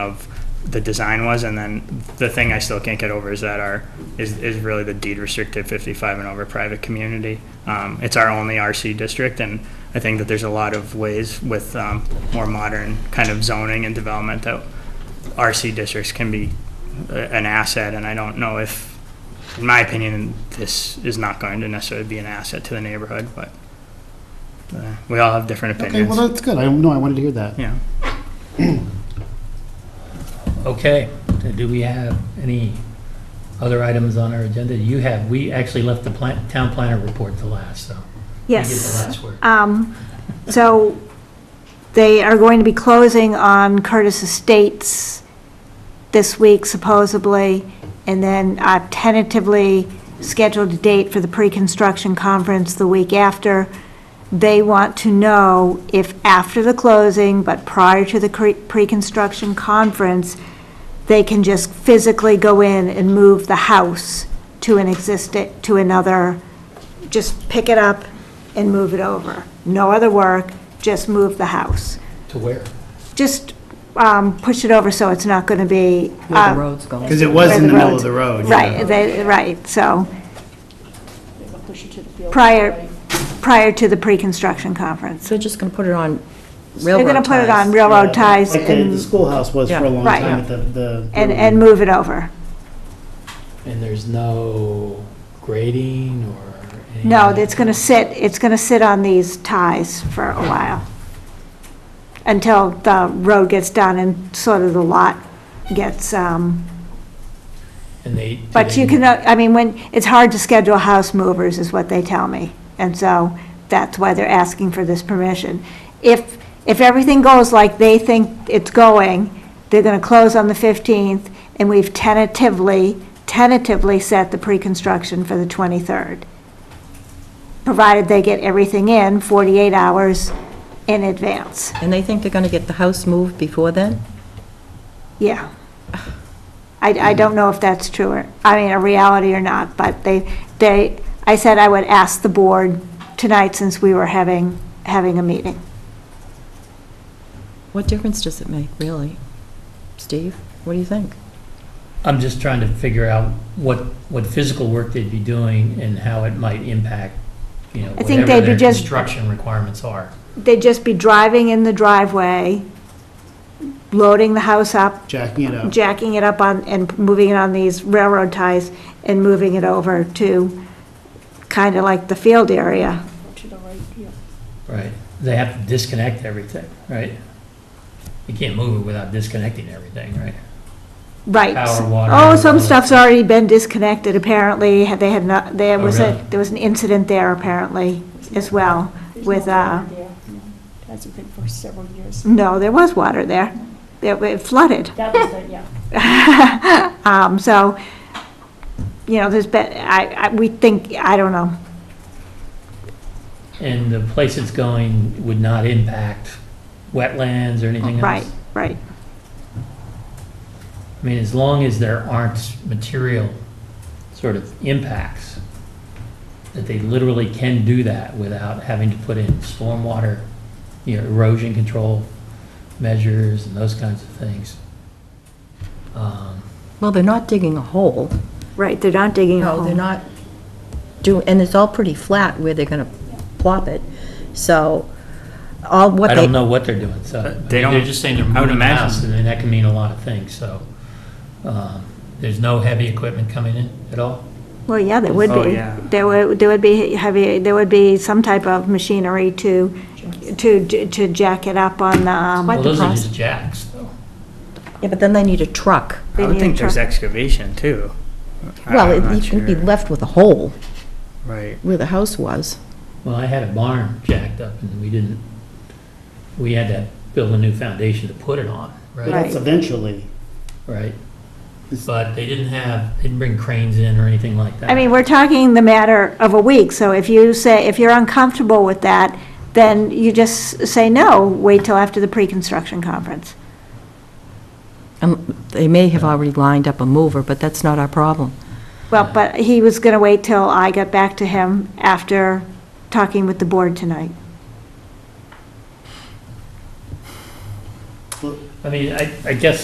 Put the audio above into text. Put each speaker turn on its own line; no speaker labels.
of the design was, and then the thing I still can't get over is that our, is, is really the deed restricted fifty-five and over private community. Um, it's our only RC district, and I think that there's a lot of ways with, um, more modern kind of zoning and development that RC districts can be a- an asset, and I don't know if, in my opinion, this is not going to necessarily be an asset to the neighborhood, but, uh, we all have different
Okay, well,
opinions,
that's good. I, no, I wanted to hear that.
yeah.
Okay, do we have any other items on our agenda? You have, we actually left the plan- town planner report to last, so. you get the
Yes.
last word.
Um, So they are going to be closing on Curtis Estates this week supposedly, and then uh, tentatively scheduled a date for the pre-construction conference the week after. They want to know if after the closing, but prior to the cre- pre-construction conference, they can just physically go in and move the house to an existing, to another, just pick it up and move it over. No other work, just move the house.
To where?
Just um, push it over so it's not going to be.
where
uh,
the road's going.
Because it was
Where
in
the
the middle
roads-
of the road. yeah.
Right, they, right, so. Prior, prior to the pre-construction conference.
So they're just going to put it on
They're
railroad
going to put it on
ties.
railroad ties
Like the- the
and,
schoolhouse was for a
Yeah.
long
Right.
time at the, the.
and, and move it over.
And there's no grading or? any-
No, it's going to sit, it's going to sit on these ties for a while. Until the road gets done and sort of the lot gets, um,
And they? do
but
they-
you can, I mean, when, it's hard to schedule house movers, is what they tell me. And so that's why they're asking for this permission. If, if everything goes like they think it's going, they're going to close on the 15th, and we've tentatively, tentatively set the pre-construction for the 23rd, provided they get everything in 48 hours in advance.
And they think they're going to get the house moved before then?
Yeah. I, I don't know if that's true or, I mean, a reality or not, but they, they, I said I would ask the board tonight since we were having, having a meeting.
What difference does it make, really? Steve, what do you think?
I'm just trying to figure out what, what physical work they'd be doing and how it might impact, you know,
I think
whatever
they'd be
their
just-
construction requirements are.
They'd just be driving in the driveway, loading the house up,
Jacking it up.
jacking it up on, and moving it on these railroad ties and moving it over to kind of like the field area.
Right, they have to disconnect everything, right? You can't move it without disconnecting everything, right?
Right.
Power, water.
Oh, some stuff's already been disconnected, apparently, Had- they had not, there
Oh,
was a,
really?
there was an incident there apparently as well. with, uh, Mm.
Hasn't been for several years.
No, there was water there, It- it flooded.
That was, the- yeah.
Um, so, you know, there's been, I, I, we think, I don't know,
And the place it's going would not impact wetlands or anything else?
right, right.
I mean, as long as there aren't material sort of impacts, that they literally can do that without having to put in stormwater, you know, erosion control measures and those kinds of things. Um,
Well, they're not digging a hole.
Right, they're not digging a
No, they're
hole.
not doing, and it's all pretty flat where they're going to plop it. So all what they...
I don't know what they're doing, so.
Uh, they
I mean,
don't-
They're just saying they're
I would
moving the
imagine.
house, and then that can mean a lot of things, so. um, There's no heavy equipment coming in at all?
Well, yeah, there would
Oh,
be.
yeah.
There would, there would be heavy, there would be some type of machinery to, to, to jack it up on the, um,
What
Well,
the
those are
process-
just jacks, though.
Yeah, but then they need a truck.
They
I would
need
think
a
there's
truck.
excavation too. I-
Well,
I'm
it-
not
you can be
sure.
left with a hole
Right.
where the house was.
Well, I had a barn jacked up and we didn't, we had to build a new foundation to put it on,
But
right?
that's eventually.
Right. But they didn't have, they didn't bring cranes in or anything like that.
I mean, we're talking the matter of a week, so if you say, if you're uncomfortable with that, then you just say no, wait till after the pre-construction conference.
Um, They may have already lined up a mover, but that's not our problem.
Well, but he was going to wait till I got back to him after talking with the board tonight.
I mean, I, I guess